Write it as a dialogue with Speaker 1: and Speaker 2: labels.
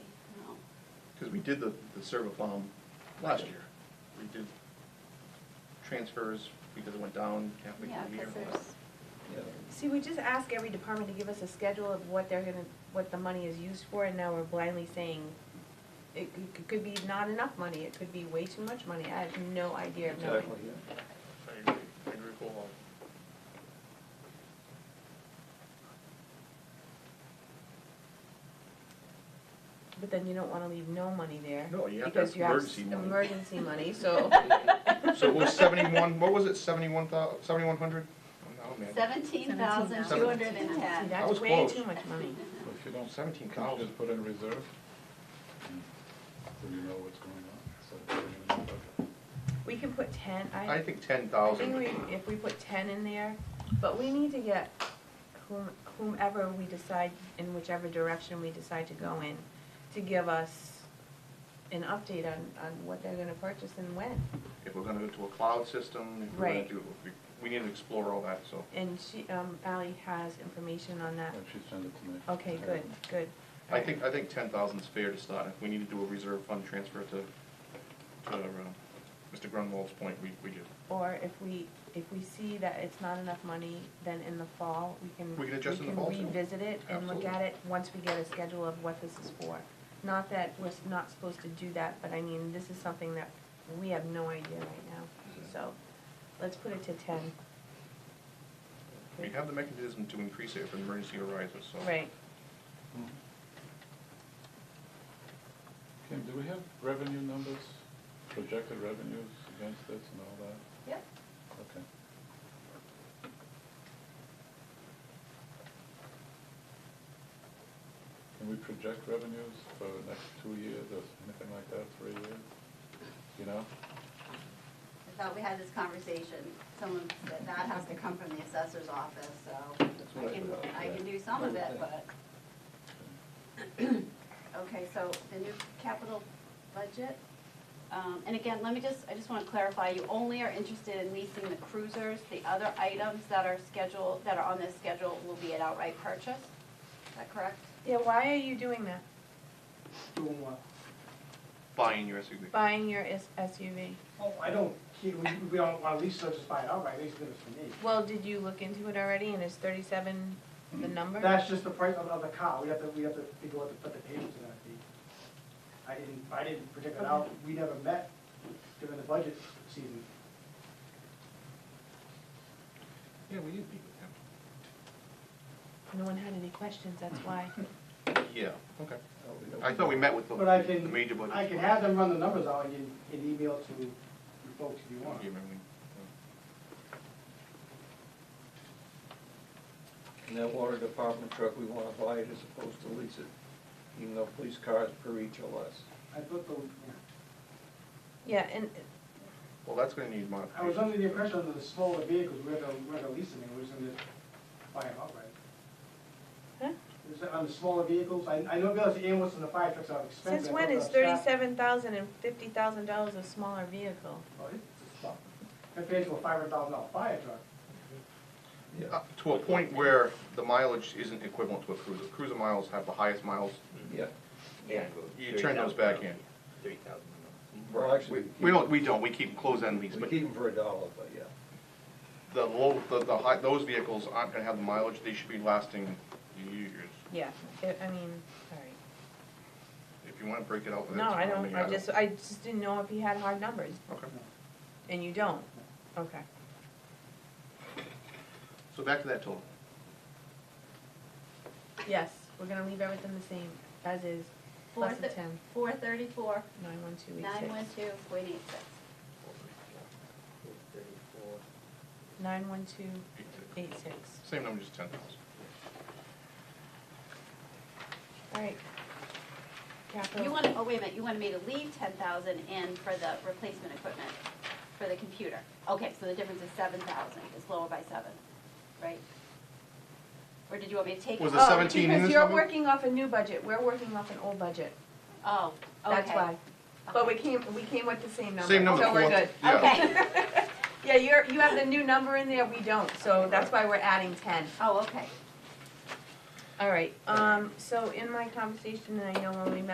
Speaker 1: we did the, the Servofom last year. We did transfers because it went down halfway
Speaker 2: Yeah,
Speaker 1: through the year.
Speaker 2: because there's,
Speaker 3: See, we just ask every department to give us a schedule of what they're gonna, what the money is used for, and now we're blindly saying it c- c- could be not enough money, it could be way too much money, I have no idea of knowing.
Speaker 4: Exactly, yeah.
Speaker 1: I agree, I agree wholeheartedly.
Speaker 3: But then you don't wanna leave no money there.
Speaker 1: No, you have to have emergency money.
Speaker 3: Because you have s- emergency money, so.
Speaker 1: So it was seventy-one, what was it, seventy-one thou, seventy-one hundred? Oh, no, man,
Speaker 2: seventeen thousand two hundred and
Speaker 3: See,
Speaker 2: ten.
Speaker 1: That was
Speaker 3: that's way
Speaker 1: close.
Speaker 3: too much money.
Speaker 4: Well, If you don't
Speaker 1: seventeen
Speaker 4: count
Speaker 1: thousand.
Speaker 4: it, put in reserve, Mm. so you know what's going on, so it's in the budget.
Speaker 3: We can put ten, I.
Speaker 1: I think ten
Speaker 3: I
Speaker 1: thousand.
Speaker 3: think we, if we put ten in there, but we need to get whom- whomever we decide, in whichever direction we decide to go in, to give us an update on, on what they're gonna purchase and when.
Speaker 1: If we're gonna go to a cloud system, if we're gonna
Speaker 3: Right.
Speaker 1: do, we, we need to explore all that, so.
Speaker 3: And she, um, Ally has information on that.
Speaker 4: If she sends it to me.
Speaker 3: Uh, Okay, good, good.
Speaker 1: I think, I think ten thousand's fair to start. If we need to do a reserve fund transfer to, to, uh, Mr. Grunwald's point, we, we do.
Speaker 3: Or if we, if we see that it's not enough money, then in the fall, we can.
Speaker 1: We can adjust in the fall, too.
Speaker 3: can revisit it and look at
Speaker 1: Absolutely.
Speaker 3: it, once we get a schedule of what this is for. Not that we're s- not supposed to do that, but I mean, this is something that we have no idea right now. So, let's put it to ten.
Speaker 1: We have the mechanism to increase it if an emergency arises, so.
Speaker 3: Right,
Speaker 4: Mhm. Kim, do we have revenue numbers, projected revenues against this and all that?
Speaker 3: yep.
Speaker 4: Okay. Can we project revenues for the next two years or anything like that, three years? You know?
Speaker 2: I thought we had this conversation, someone said that has to come from the assessor's office, so I can, I can do some of it, but. Okay, so the new capital budget, um, and again, let me just, I just want to clarify, you only are interested in leasing the cruisers. The other items that are scheduled, that are on this schedule will be an outright purchase, is that correct?
Speaker 3: Yeah, why are you doing that?
Speaker 5: Doing what?
Speaker 1: Buying your SUV.
Speaker 3: Buying your S- SUV?
Speaker 5: Oh, I don't, we, we don't want to lease, let's just buy it outright, lease it for me.
Speaker 3: Well, did you look into it already and is thirty-seven the
Speaker 1: Mm-hmm.
Speaker 3: number?
Speaker 5: That's just the price of, of the car, we have to, we have to figure out what the payments are gonna be. I didn't, I didn't predict it out, we never met during the budget season.
Speaker 1: Yeah, we did meet with
Speaker 3: No one had any questions, that's why.
Speaker 1: him. Yeah, okay. I thought we met with the,
Speaker 5: But I
Speaker 1: the
Speaker 5: can,
Speaker 1: major budget.
Speaker 5: I can have them run the numbers out and, you- and email to you folks if you
Speaker 1: Yeah,
Speaker 5: want.
Speaker 1: I mean,
Speaker 6: And that water department truck, we wanna buy it as opposed to lease it, even though police cars per each or less.
Speaker 5: I thought the, yeah.
Speaker 3: Yeah, and
Speaker 1: Well, that's gonna need
Speaker 5: I was
Speaker 1: modification.
Speaker 5: under the impression that the smaller vehicles, we're gonna, we're gonna lease them, and we're just gonna buy them outright.
Speaker 3: Huh?
Speaker 5: Is that on the smaller vehicles? I, I know because the ambulance and the fire trucks are expensive.
Speaker 3: Since
Speaker 5: I
Speaker 3: when
Speaker 5: thought
Speaker 3: is
Speaker 5: the staff-
Speaker 3: thirty-seven thousand and fifty thousand dollars a smaller vehicle?
Speaker 5: Oh, it's it's tough. Compared to a five hundred thousand dollar fire truck.
Speaker 1: Uh, To a point where the mileage isn't equivalent to a cruiser. Cruiser miles have the highest miles.
Speaker 6: Yeah.
Speaker 7: Yeah.
Speaker 1: You turn those back in.
Speaker 7: Thirty thousand.
Speaker 6: Well,
Speaker 1: We,
Speaker 6: actually, we keep.
Speaker 1: we don't, we don't, we keep close-end lease,
Speaker 6: We
Speaker 1: but
Speaker 6: keep them for a dollar, but yeah.
Speaker 1: the low, the, the high, those vehicles aren't gonna have the mileage, they should be lasting years.
Speaker 3: Yeah, I, I mean, sorry.
Speaker 1: If you wanna break it out, that's
Speaker 3: No, I
Speaker 1: fine,
Speaker 3: don't,
Speaker 1: mean,
Speaker 3: I just, I just didn't know if he had hard numbers,
Speaker 1: Okay,
Speaker 3: and you don't, okay.
Speaker 1: so back to that total.
Speaker 3: Yes, we're gonna leave everything the same, as is,
Speaker 2: Four
Speaker 3: plus the
Speaker 2: thi-
Speaker 3: ten,
Speaker 2: Four thirty-four,
Speaker 3: nine one two eight
Speaker 2: nine one
Speaker 3: six.
Speaker 2: two, point eight six.
Speaker 7: Thirty-four.
Speaker 3: Nine one two eight six.
Speaker 1: Same number, just ten thousand.
Speaker 3: All right. Capital.
Speaker 2: You want, oh, wait a minute, you wanted me to leave ten thousand in for the replacement equipment for the computer. Okay, so the difference is seven thousand, it's lower by seven, right? Or did you want me to take?
Speaker 1: Was
Speaker 2: it?
Speaker 1: the
Speaker 3: Oh,
Speaker 1: 17 in
Speaker 3: Because
Speaker 1: this
Speaker 3: you're
Speaker 1: number?
Speaker 3: working off a new budget, we're working off an old budget,
Speaker 2: Oh, okay.
Speaker 3: that's why. But we came, we came with the same number,
Speaker 1: Same number,
Speaker 3: so we're
Speaker 1: four-
Speaker 3: good.
Speaker 1: yeah.
Speaker 2: Okay,
Speaker 3: Yeah, you're, you have the new number in there, we don't, so that's why we're adding ten.
Speaker 2: oh, okay.
Speaker 3: All right, um, so in my conversation, and I know when we met